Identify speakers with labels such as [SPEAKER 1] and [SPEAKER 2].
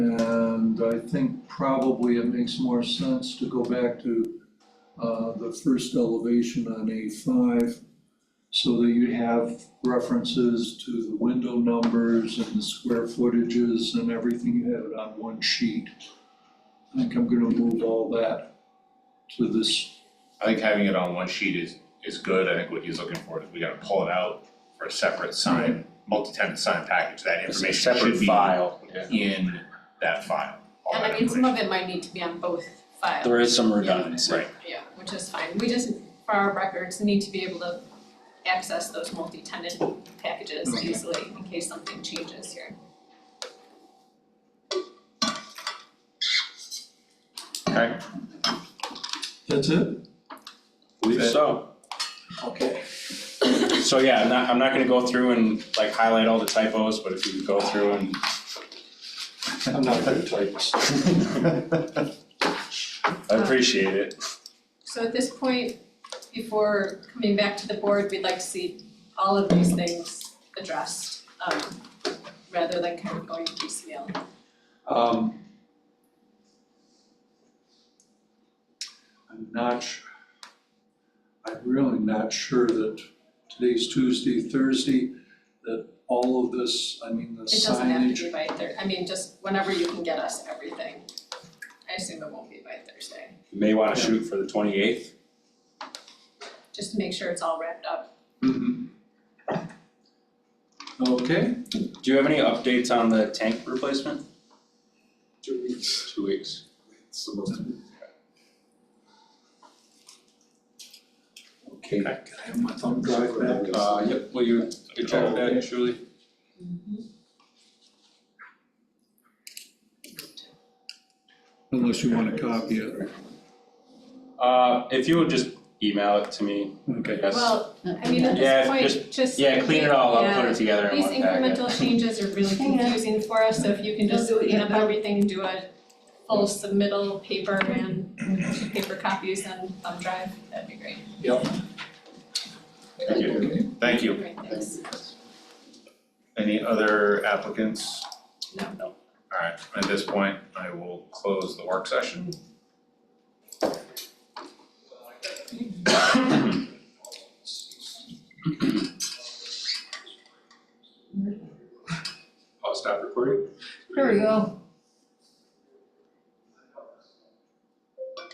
[SPEAKER 1] And I think probably it makes more sense to go back to uh, the first elevation on A5 so that you have references to the window numbers and the square footages and everything you have it on one sheet. I think I'm gonna move all that to this,
[SPEAKER 2] I think having it on one sheet is is good, I think what he's looking for is we gotta pull it out for a separate sign, multi-tenant sign package, that
[SPEAKER 3] It's a
[SPEAKER 2] information
[SPEAKER 3] separate
[SPEAKER 2] should be
[SPEAKER 3] file, yeah.
[SPEAKER 2] in that file, all
[SPEAKER 4] And
[SPEAKER 2] that
[SPEAKER 4] I mean, some
[SPEAKER 2] information.
[SPEAKER 4] of it might need to be on both files.
[SPEAKER 3] There is some redundancy.
[SPEAKER 2] Right,
[SPEAKER 4] Yeah, which is fine, we just, for our records, need to be able to access those multi-tenant packages
[SPEAKER 1] Okay.
[SPEAKER 4] easily in case something changes here.
[SPEAKER 2] okay,
[SPEAKER 1] that's it?
[SPEAKER 3] Believe so.
[SPEAKER 1] Okay.
[SPEAKER 3] So yeah, I'm not, I'm not gonna go through and like highlight all the typos, but if you could go through and.
[SPEAKER 1] I'm not gonna type this.
[SPEAKER 3] I appreciate it.
[SPEAKER 4] So at this point, before coming back to the board, we'd like to see all of these things addressed, um, rather than kind of going piecemeal.
[SPEAKER 1] Um. I'm not su- I'm really not sure that today's Tuesday, Thursday, that all of this, I mean, the
[SPEAKER 4] It doesn't have to
[SPEAKER 1] signage.
[SPEAKER 4] be by Thursday. I mean, just whenever you can get us everything. I assume it won't be by Thursday,
[SPEAKER 3] You may wanna shoot for the twenty eighth,
[SPEAKER 4] just to make sure it's all wrapped up.
[SPEAKER 1] Mhm. Okay,
[SPEAKER 3] do you have any updates on the tank replacement?
[SPEAKER 5] Two weeks,
[SPEAKER 3] Two weeks.
[SPEAKER 5] it's supposed to be.
[SPEAKER 1] okay, can I have my thumb drive back?
[SPEAKER 3] Uh, yep, will you, you check that, Julie?
[SPEAKER 1] Unless you wanna copy it,
[SPEAKER 3] Uh, if you would just email it to me, I
[SPEAKER 1] okay.
[SPEAKER 3] guess.
[SPEAKER 4] Well, I mean, at
[SPEAKER 3] Yeah,
[SPEAKER 4] this point, just.
[SPEAKER 3] Yeah, clean it all up, put it together
[SPEAKER 4] Yeah,
[SPEAKER 3] in
[SPEAKER 4] these
[SPEAKER 3] one packet.
[SPEAKER 4] incremental changes are really
[SPEAKER 6] Hang on.
[SPEAKER 4] confusing for us, so if you can just
[SPEAKER 6] We'll do it
[SPEAKER 4] clean
[SPEAKER 6] yet,
[SPEAKER 4] up
[SPEAKER 6] but-
[SPEAKER 4] everything, do a full submittal paper and paper copies and thumb drive, that'd be great.
[SPEAKER 2] thank you,
[SPEAKER 1] Okay.
[SPEAKER 2] thank you.
[SPEAKER 4] Great, thanks.
[SPEAKER 2] Any other applicants?
[SPEAKER 4] No.
[SPEAKER 2] Alright, at this point, I will close the work session. I'll stop recording.
[SPEAKER 6] There we go.